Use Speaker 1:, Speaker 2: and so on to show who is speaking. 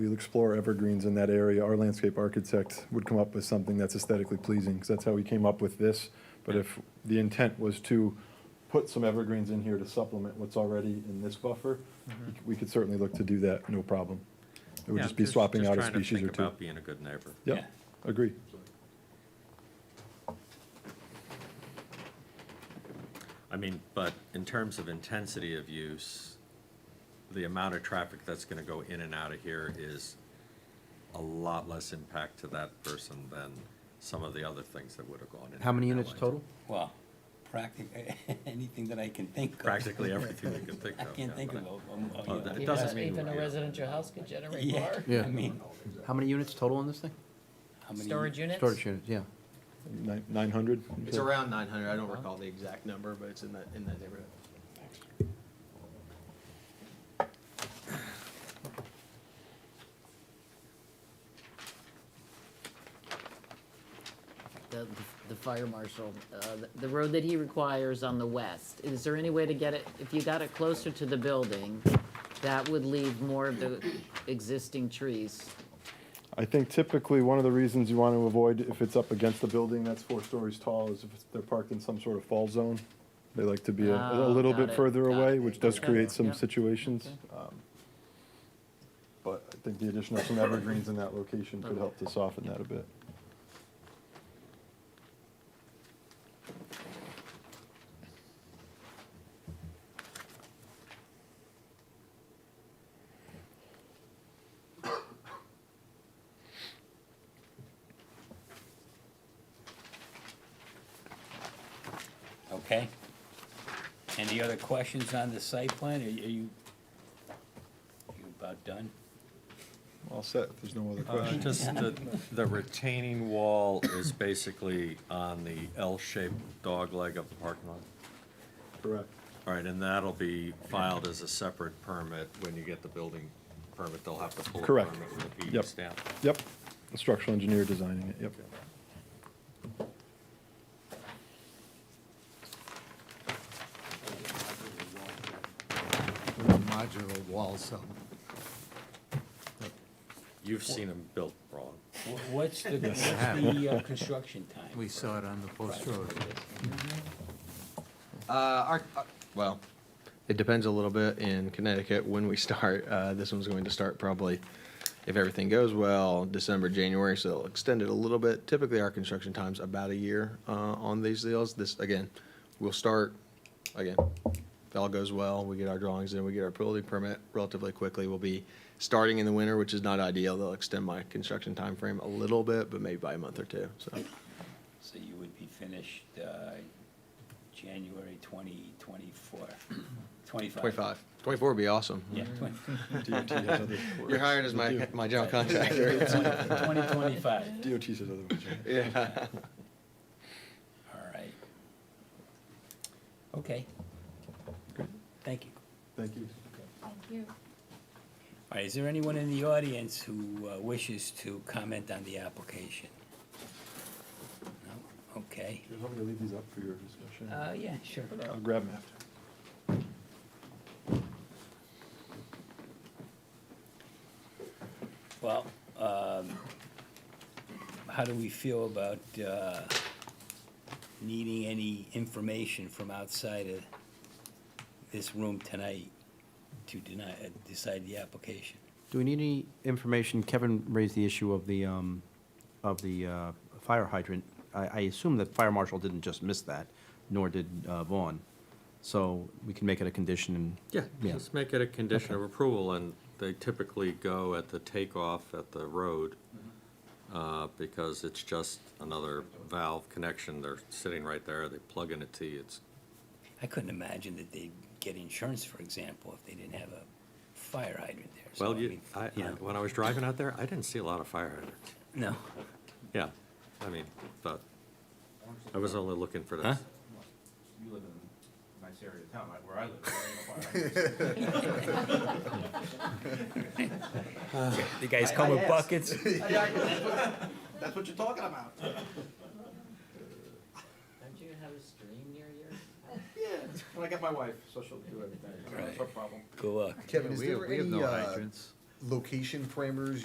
Speaker 1: We'll explore evergreens in that area. Our landscape architect would come up with something that's aesthetically pleasing, because that's how he came up with this. But if the intent was to put some evergreens in here to supplement what's already in this buffer, we c- we could certainly look to do that, no problem. It would
Speaker 2: Mm-hmm. Yeah,
Speaker 1: just be swapping
Speaker 2: just
Speaker 1: out a
Speaker 2: trying to
Speaker 1: species or
Speaker 2: think
Speaker 1: two.
Speaker 2: about being a good neighbor.
Speaker 1: Yep, agree.
Speaker 2: I mean, but in terms of intensity of use, the amount of traffic that's gonna go in and out of here is a lot less impact to that person than some of the other things that would have gone in.
Speaker 3: How many
Speaker 2: there
Speaker 3: units
Speaker 2: that way.
Speaker 3: total?
Speaker 4: Well, practically, anything that I can think of.
Speaker 2: Practically everything you can think
Speaker 4: I
Speaker 2: of.
Speaker 4: can't
Speaker 2: oh, yeah,
Speaker 4: think
Speaker 2: but
Speaker 4: of.
Speaker 2: I-
Speaker 4: um, uh,
Speaker 2: Oh,
Speaker 4: you
Speaker 2: that-
Speaker 4: know.
Speaker 2: It doesn't
Speaker 5: Even-
Speaker 2: mean
Speaker 5: Even a
Speaker 2: we-
Speaker 5: residential house could generate
Speaker 4: Yeah,
Speaker 5: more.
Speaker 3: Yeah.
Speaker 4: I mean,
Speaker 3: How many units total on this thing?
Speaker 4: how many?
Speaker 5: Storage units?
Speaker 3: Storage units, yeah.
Speaker 1: Nine hundred?
Speaker 6: It's around nine hundred, I don't recall the exact number, but it's in that, in that neighborhood.
Speaker 5: The, the fire marshal, uh, the- the road that he requires on the west, is there any way to get it, if you got it closer to the building, that would leave more of the existing trees?
Speaker 1: I think typically, one of the reasons you want to avoid, if it's up against a building that's four stories tall, is if it's- they're parked in some sort of fall zone. They like to be a a
Speaker 5: Oh,
Speaker 1: little
Speaker 5: got
Speaker 1: bit
Speaker 5: it,
Speaker 1: further
Speaker 5: got
Speaker 1: away,
Speaker 5: it.
Speaker 1: which does
Speaker 5: Okay,
Speaker 1: create some
Speaker 5: yeah.
Speaker 1: situations. Um, But I think the addition of some evergreens in that location could help to soften that a bit.
Speaker 4: Okay. Any other questions on the site plan? Are you, are you you about done?
Speaker 1: All set, if there's no other
Speaker 2: Uh,
Speaker 1: questions.
Speaker 2: Just the, the retaining wall is basically on the L-shaped dog leg of the parking lot.
Speaker 1: Correct.
Speaker 2: All right, and that'll be filed as a separate permit. When you get the building permit, they'll have to pull a permit
Speaker 1: Correct.
Speaker 2: with a PE
Speaker 1: Yep.
Speaker 2: stamp.
Speaker 1: Yep, the structural engineer designing it, yep.
Speaker 7: modular wall cell.
Speaker 2: You've seen them built wrong.
Speaker 4: Wh- What's the, what's
Speaker 7: have.
Speaker 4: the uh, construction time?
Speaker 7: We saw it on the post road.
Speaker 6: Uh, our, uh, well, it depends a little bit in Connecticut when we start. Uh, this one's going to start probably, if everything goes well, December, January, so it'll extend it a little bit. Typically, our construction time's about a year, uh, on these deals. This, again, we'll start, again, if all goes well, we get our drawings in, we get our building permit relatively quickly. We'll be starting in the winter, which is not ideal. They'll extend my construction timeframe a little bit, but maybe by a month or two, so.
Speaker 4: So you would be finished, uh, January twenty twenty-four, twenty-five?
Speaker 6: Twenty-five. Twenty-four would be awesome.
Speaker 4: Yeah, twenty,
Speaker 1: DOT has other
Speaker 6: You're hired as my, my general contractor.
Speaker 4: twenty twenty-five.
Speaker 1: DOT says otherwise. right?
Speaker 6: Yeah.
Speaker 4: All right. Okay. Thank you.
Speaker 1: Thank you.
Speaker 4: All right, is there anyone in the audience who uh, wishes to comment on the application? No? Okay.
Speaker 1: Do you want me to leave these up for your discussion?
Speaker 4: Uh, yeah, sure.
Speaker 1: I'll grab them after.
Speaker 4: Well, um, how do we feel about, uh, needing any information from outside of this room tonight to deny, uh, decide the application?
Speaker 3: Do we need any information? Kevin raised the issue of the, um, of the, uh, fire hydrant. I, I assume that fire marshal didn't just miss that, nor did, uh, Vaughn. So we can make it a condition and.
Speaker 2: Yeah,
Speaker 3: Yeah.
Speaker 2: just make it a condition of approval, and they typically go at the takeoff at the road, uh, because it's just another valve connection, they're sitting right there, they plug in a T, it's,
Speaker 4: I couldn't imagine that they'd get insurance, for example, if they didn't have a fire hydrant there. So,
Speaker 2: well,
Speaker 4: I
Speaker 2: you,
Speaker 4: mean,
Speaker 2: I, I-
Speaker 4: you know,
Speaker 2: when I was driving out there, I didn't see a lot of fire hydrants.
Speaker 4: No.
Speaker 2: Yeah, I mean, but, I was only looking for
Speaker 4: Huh?
Speaker 2: this.
Speaker 8: you live in a nice area of town, like where I live, there ain't no fire hydrants.
Speaker 4: The guys come with buckets.
Speaker 8: That's what you're talking about.
Speaker 5: Don't you have a stream near your?
Speaker 8: Yeah, when I got my wife, so she'll do everything,
Speaker 4: Right.
Speaker 8: no problem.
Speaker 4: Good luck.
Speaker 7: Kevin, is
Speaker 3: we have-
Speaker 7: there
Speaker 3: we have
Speaker 7: any,
Speaker 3: no
Speaker 7: uh,
Speaker 3: hydrants.
Speaker 9: location parameters